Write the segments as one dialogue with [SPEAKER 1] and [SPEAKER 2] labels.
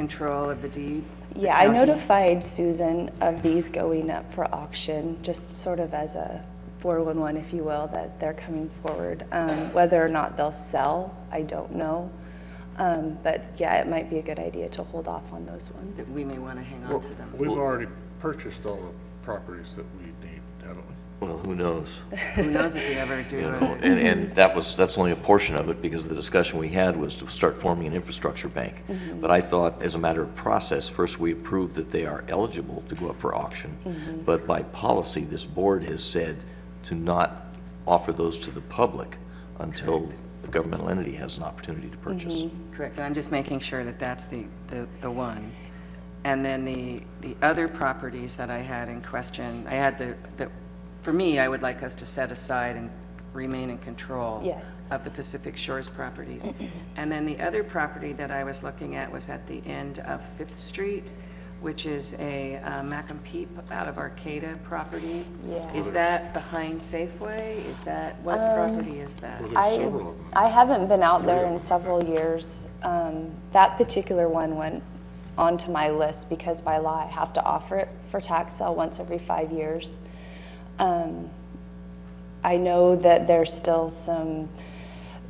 [SPEAKER 1] control of the deed? the
[SPEAKER 2] Yeah, I
[SPEAKER 1] county?
[SPEAKER 2] notified Susan of these going up for auction, just sort of as a 411, if you will, that they're coming forward. Um, Whether or not they'll sell, I don't know. Um, But yeah, it might be a good idea to hold off on those ones.
[SPEAKER 1] That we may want to hang on to them.
[SPEAKER 3] We've already purchased all the properties that we need, haven't we?
[SPEAKER 4] Well, who knows?
[SPEAKER 1] Who knows if we ever do
[SPEAKER 4] You know,
[SPEAKER 1] it?
[SPEAKER 4] and, and that was, that's only a portion of it, because the discussion we had was to start forming an infrastructure bank.
[SPEAKER 1] Mm-hmm.
[SPEAKER 4] But I thought, as a matter of process, first we approved that they are eligible to go up for
[SPEAKER 1] Mm-hmm.
[SPEAKER 4] auction. But by policy, this board has said to not offer those to the public until the governmental entity has an opportunity to purchase.
[SPEAKER 1] Correct, I'm just making sure that that's the, the the one. And then the, the other properties that I had in question, I had the, the, for me, I would like us to set aside and remain in control.
[SPEAKER 2] Yes.
[SPEAKER 1] Of the Pacific Shores properties. And then the other property that I was looking at was at the end of Fifth Street, which is a uh, Mac and Peep out of Arcata property.
[SPEAKER 2] Yeah. Um,
[SPEAKER 1] Is that behind Safeway? Is that, what property is that?
[SPEAKER 3] Well,
[SPEAKER 2] I-
[SPEAKER 3] there's several of them.
[SPEAKER 2] I haven't been out there in several years. Um, That particular one went onto my list because by law I have to offer it for tax sale once every five years. Um, I know that there's still some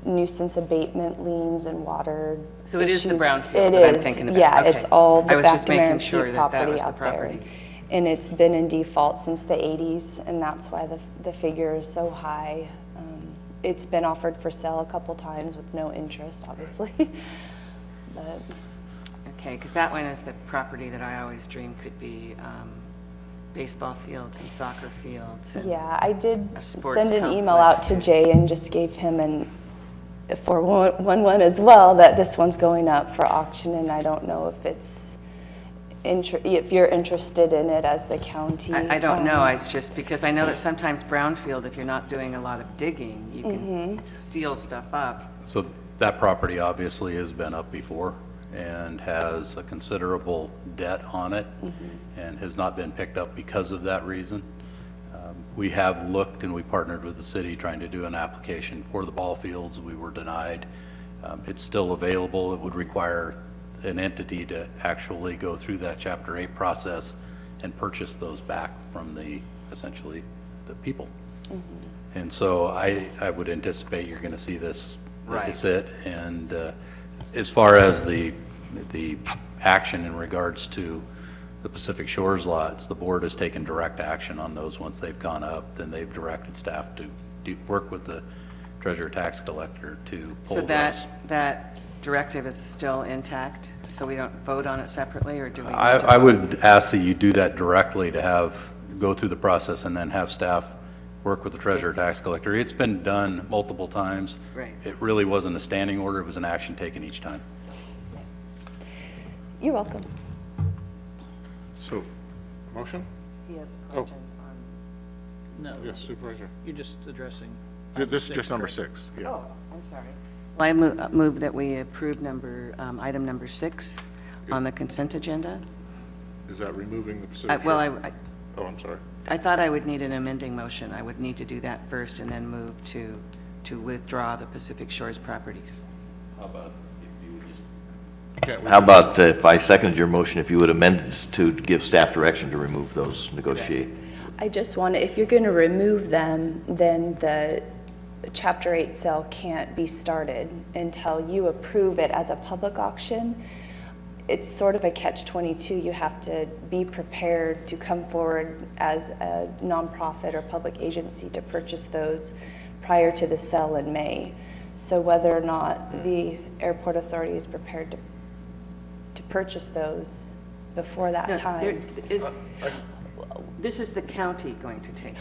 [SPEAKER 2] nuisance abatement liens and water
[SPEAKER 1] So it is the
[SPEAKER 2] issues.
[SPEAKER 1] brownfield
[SPEAKER 2] It
[SPEAKER 1] that I'm
[SPEAKER 2] is,
[SPEAKER 1] thinking about.
[SPEAKER 2] Yeah, it's
[SPEAKER 1] Okay.
[SPEAKER 2] all
[SPEAKER 1] I
[SPEAKER 2] the
[SPEAKER 1] was just
[SPEAKER 2] back to Marin
[SPEAKER 1] making sure
[SPEAKER 2] Peak
[SPEAKER 1] that that
[SPEAKER 2] property
[SPEAKER 1] was the
[SPEAKER 2] out there.
[SPEAKER 1] property.
[SPEAKER 2] And it's been in default since the 80s, and that's why the, the figure is so high. Um, It's been offered for sale a couple times with no interest, obviously. But
[SPEAKER 1] Okay, because that one is the property that I always dreamed could be um, baseball fields and soccer fields. and-
[SPEAKER 2] Yeah, I did
[SPEAKER 1] a sports
[SPEAKER 2] send an email out
[SPEAKER 1] complex.
[SPEAKER 2] to Jay and just gave him an, for one one one as well, that this one's going up for auction, and I don't know if it's, inter- if you're interested in it as the county.
[SPEAKER 1] I I don't know,
[SPEAKER 2] um,
[SPEAKER 1] it's just because I know that sometimes brownfield, if you're not doing a lot of digging, you can
[SPEAKER 2] Mm-hmm.
[SPEAKER 1] seal stuff up.
[SPEAKER 5] So that property obviously has been up before and has a considerable debt on it and has not been picked up because of that reason. Um, We have looked and we partnered with the city trying to do an application for the ball fields. We were denied. Um, It's still available. It would require an entity to actually go through that Chapter 8 process and purchase those back from the, essentially, the people.
[SPEAKER 1] Mm-hmm.
[SPEAKER 5] And so I, I would anticipate you're going to see this, like I
[SPEAKER 1] Right.
[SPEAKER 5] said. And uh, as far as the, the action in regards to the Pacific Shores lots, the board has taken direct action on those once they've gone up. Then they've directed staff to do, work with the treasurer tax collector to
[SPEAKER 1] So
[SPEAKER 5] pull those.
[SPEAKER 1] that, that directive is still intact, so we don't vote on it separately, or do we?
[SPEAKER 5] I,
[SPEAKER 1] need to
[SPEAKER 5] I
[SPEAKER 1] vote?
[SPEAKER 5] would ask that you do that directly to have, go through the process and then have staff work with the treasurer tax collector. It's been done multiple times.
[SPEAKER 1] Right.
[SPEAKER 5] It really wasn't a standing order, it was an action taken each time.
[SPEAKER 2] You're welcome.
[SPEAKER 3] So, motion?
[SPEAKER 6] He has a
[SPEAKER 3] Oh.
[SPEAKER 6] question on,
[SPEAKER 7] No,
[SPEAKER 3] Yes, Supervisor.
[SPEAKER 7] you're just addressing.
[SPEAKER 3] Th- This is just number six, yeah.
[SPEAKER 6] oh, I'm sorry.
[SPEAKER 1] Well, I mo- uh, move that we approve number, um, item number six on the consent agenda.
[SPEAKER 3] Is that removing the
[SPEAKER 1] I-
[SPEAKER 3] Pacific?
[SPEAKER 1] Uh, Well,
[SPEAKER 3] Shores?
[SPEAKER 1] I, I-
[SPEAKER 3] Oh, I'm sorry.
[SPEAKER 1] I thought I would need an amending motion. I would need to do that first and then move to, to withdraw the Pacific Shores properties.
[SPEAKER 3] Can't we
[SPEAKER 4] How
[SPEAKER 3] do-
[SPEAKER 4] about uh, if I seconded your motion, if you would amend it to give staff direction to remove those, negotiate?
[SPEAKER 2] I just want, to if you're going to remove them, then the Chapter 8 sale can't be started until you approve it as a public auction. It's sort of a catch-22. You have to be prepared to come forward as a nonprofit or public agency to purchase those prior to the sale in May. So whether or not the airport authority is prepared to, to purchase those before that time.
[SPEAKER 1] There- is-
[SPEAKER 3] Uh,
[SPEAKER 1] This is the county going to take.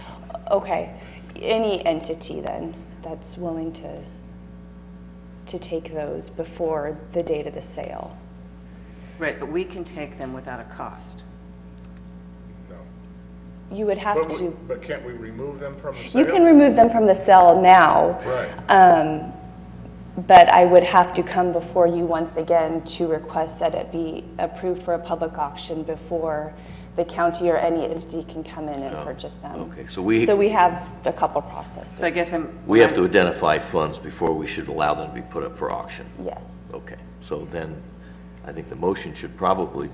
[SPEAKER 2] Okay, any entity then that's willing to, to take those before the date of the sale?
[SPEAKER 1] Right, but we can take them without a cost.
[SPEAKER 3] No.
[SPEAKER 2] You would have
[SPEAKER 3] But we-
[SPEAKER 2] to,
[SPEAKER 3] But can't we remove them from the sale?
[SPEAKER 2] you can remove them from the sale now.
[SPEAKER 3] Right.
[SPEAKER 2] Um, but I would have to come before you once again to request that it be approved for a public auction before the county or any entity can come in and
[SPEAKER 4] Oh,
[SPEAKER 2] purchase them.
[SPEAKER 4] okay, so we-
[SPEAKER 2] So we have a couple processes.
[SPEAKER 1] So I guess I'm.
[SPEAKER 4] We have to identify funds before we should allow them to be put up for auction.
[SPEAKER 2] Yes.
[SPEAKER 4] Okay, so then I think the motion should probably